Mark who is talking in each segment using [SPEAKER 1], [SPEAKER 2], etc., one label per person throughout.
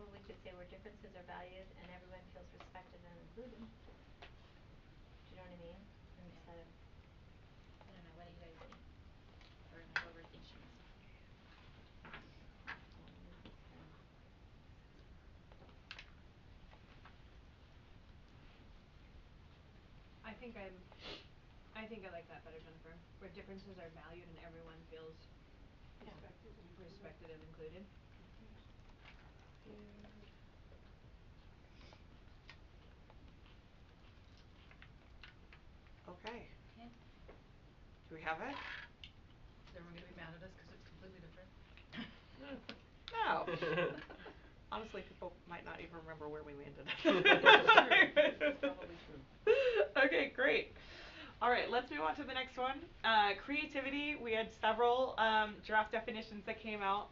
[SPEAKER 1] one could say where differences are valued and everyone feels respected and included. Do you know what I mean? Instead of
[SPEAKER 2] I don't know, what do you guys think? Or am I overthinking this?
[SPEAKER 3] I think I'm I think I like that better, Jennifer, where differences are valued and everyone feels
[SPEAKER 1] Yeah.
[SPEAKER 3] respected and included.
[SPEAKER 4] Okay,
[SPEAKER 2] Okay.
[SPEAKER 4] do we have it?
[SPEAKER 5] Is everyone gonna be mad at us 'cause it's completely different?
[SPEAKER 4] No. Honestly, people might not even remember where we landed.
[SPEAKER 5] That's probably true.
[SPEAKER 4] Okay, great. All right, let's move on to the next one. Uh, creativity, we had several um, draft definitions that came out.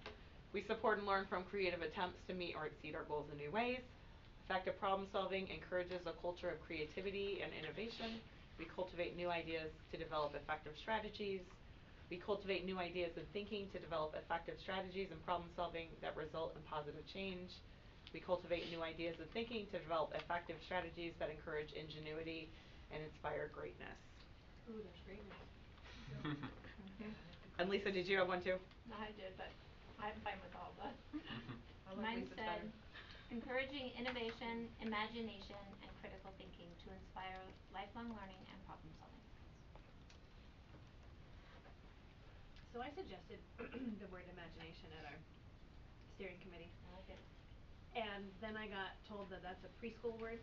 [SPEAKER 4] We support and learn from creative attempts to meet or exceed our goals in new ways. Effective problem solving encourages a culture of creativity and innovation. We cultivate new ideas to develop effective strategies. We cultivate new ideas and thinking to develop effective strategies and problem solving that result in positive change. We cultivate new ideas and thinking to develop effective strategies that encourage ingenuity and inspire greatness.
[SPEAKER 3] Ooh, there's greatness.
[SPEAKER 4] And Lisa, did you have one too?
[SPEAKER 1] No, I did, but I'm fine with all of us.
[SPEAKER 5] I like
[SPEAKER 1] Mine
[SPEAKER 5] Lisa's
[SPEAKER 1] said,
[SPEAKER 5] better.
[SPEAKER 1] encouraging innovation, imagination, and critical thinking to inspire lifelong learning and problem solving.
[SPEAKER 3] So I suggested the word imagination at our steering committee.
[SPEAKER 1] I like it.
[SPEAKER 3] And then I got told that that's a preschool word.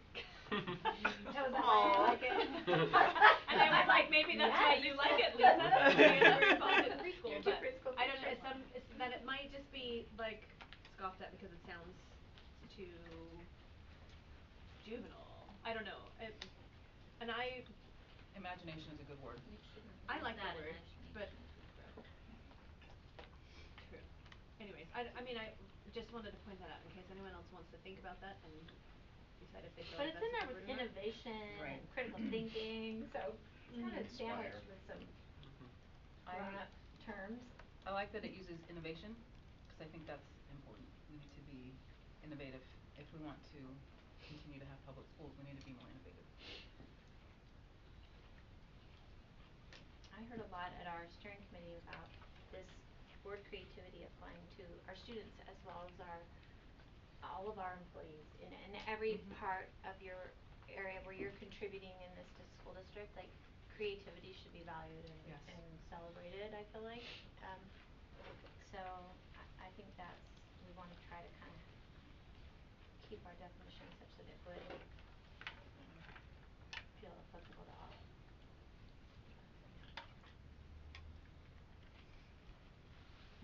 [SPEAKER 1] That was a lie, I like it.
[SPEAKER 3] And I was like, maybe that's why
[SPEAKER 1] Yes.
[SPEAKER 3] you like it, Lisa. Maybe that's why you call it preschool,
[SPEAKER 1] You're too
[SPEAKER 3] but
[SPEAKER 1] preschool
[SPEAKER 3] I don't know,
[SPEAKER 1] teacher.
[SPEAKER 3] it's some, it's that it might just be like scoffed at because it sounds too juvenile. I don't know, it, and I,
[SPEAKER 5] Imagination is a good word.
[SPEAKER 3] I like
[SPEAKER 2] that
[SPEAKER 3] that word, but True. Anyways, I d- I mean, I just wanted to point that out in case anyone else wants to think about that and decide if they feel
[SPEAKER 1] But
[SPEAKER 3] like
[SPEAKER 1] it's in
[SPEAKER 3] that's a
[SPEAKER 1] there with
[SPEAKER 3] good word or not.
[SPEAKER 1] innovation and
[SPEAKER 5] Right.
[SPEAKER 1] critical thinking, so it's kind of
[SPEAKER 5] Mhm.
[SPEAKER 1] sandwiched
[SPEAKER 5] Inspire.
[SPEAKER 1] with some
[SPEAKER 5] I-
[SPEAKER 1] grown up terms.
[SPEAKER 5] I like that it uses innovation, 'cause I think that's important. We need to be innovative. If we want to continue to have public schools, we need to be more innovative.
[SPEAKER 1] I heard a lot at our steering committee about this word creativity applying to our students as well as our, all of our employees in in every
[SPEAKER 5] Mm-hmm.
[SPEAKER 4] Mhm.
[SPEAKER 1] part of your area where you're contributing in this dis- school district, like creativity should be valued and
[SPEAKER 5] Yes.
[SPEAKER 1] and celebrated, I feel like. Um so I I think that's, we wanna try to kind of keep our definition such that it would um, feel applicable to all.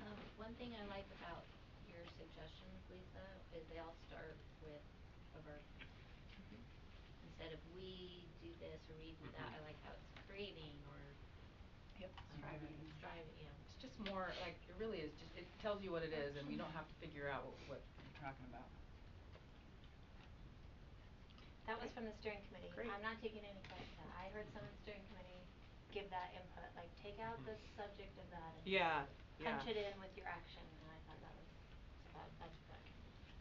[SPEAKER 2] Um, one thing I like about your suggestions, Lisa, is they all start with a verb. Instead of we do this or we do that, I like how it's creating or
[SPEAKER 5] Yep.
[SPEAKER 2] striving, striving, you know.
[SPEAKER 5] It's just more like, it really is just, it tells you what it is and you don't have to figure out wh- what you're talking about.
[SPEAKER 1] That was from the steering committee.
[SPEAKER 4] Great.
[SPEAKER 1] I'm not taking any credit for that. I heard someone in the steering committee give that input, like take out the subject of that and
[SPEAKER 4] Mm-hmm. Yeah, yeah.
[SPEAKER 1] punch it in with your action, and I thought that was, that, that's good.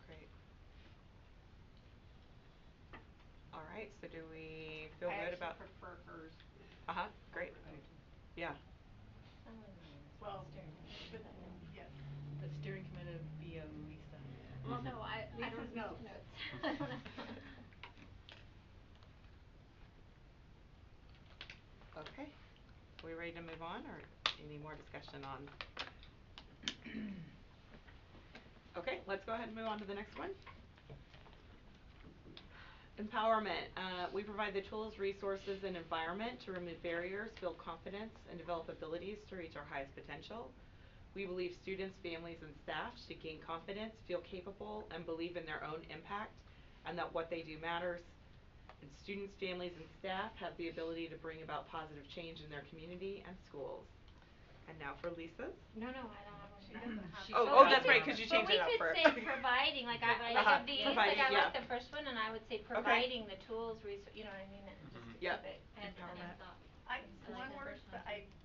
[SPEAKER 4] Great. All right, so do we feel
[SPEAKER 6] I
[SPEAKER 4] good
[SPEAKER 6] actually
[SPEAKER 4] about?
[SPEAKER 6] prefer hers.
[SPEAKER 4] Uh-huh, great,
[SPEAKER 5] I do too.
[SPEAKER 4] yeah.
[SPEAKER 1] I wouldn't mind this
[SPEAKER 6] Well,
[SPEAKER 1] steering
[SPEAKER 6] but
[SPEAKER 1] committee, but-
[SPEAKER 6] yes.
[SPEAKER 5] The steering committee would be a Lisa.
[SPEAKER 1] Well, no, I, I
[SPEAKER 6] Lisa's
[SPEAKER 1] don't know.
[SPEAKER 6] notes.
[SPEAKER 1] I don't know.
[SPEAKER 4] Okay, we ready to move on or any more discussion on? Okay, let's go ahead and move on to the next one. Empowerment, uh, we provide the tools, resources, and environment to remove barriers, build confidence, and develop abilities to reach our highest potential. We believe students, families, and staff should gain confidence, feel capable, and believe in their own impact, and that what they do matters. And students, families, and staff have the ability to bring about positive change in their community and schools. And now for Lisa's.
[SPEAKER 1] No, no, I don't have
[SPEAKER 5] She
[SPEAKER 1] one.
[SPEAKER 5] doesn't have
[SPEAKER 4] Oh,
[SPEAKER 1] But
[SPEAKER 4] oh,
[SPEAKER 1] we
[SPEAKER 4] that's right,
[SPEAKER 1] could-
[SPEAKER 4] 'cause you changed it up for-
[SPEAKER 1] But we could say providing, like I, like of
[SPEAKER 4] Uh-huh,
[SPEAKER 1] these, like
[SPEAKER 4] providing,
[SPEAKER 1] I like
[SPEAKER 4] yeah.
[SPEAKER 1] the first one, and I would say providing the tools, resou- you know what I mean, and just to
[SPEAKER 4] Yep.
[SPEAKER 1] keep it
[SPEAKER 2] And and
[SPEAKER 4] Empowerment.
[SPEAKER 2] thought.
[SPEAKER 6] I,
[SPEAKER 2] I
[SPEAKER 6] one
[SPEAKER 2] like that
[SPEAKER 6] word,
[SPEAKER 2] first
[SPEAKER 6] but
[SPEAKER 2] one.
[SPEAKER 6] I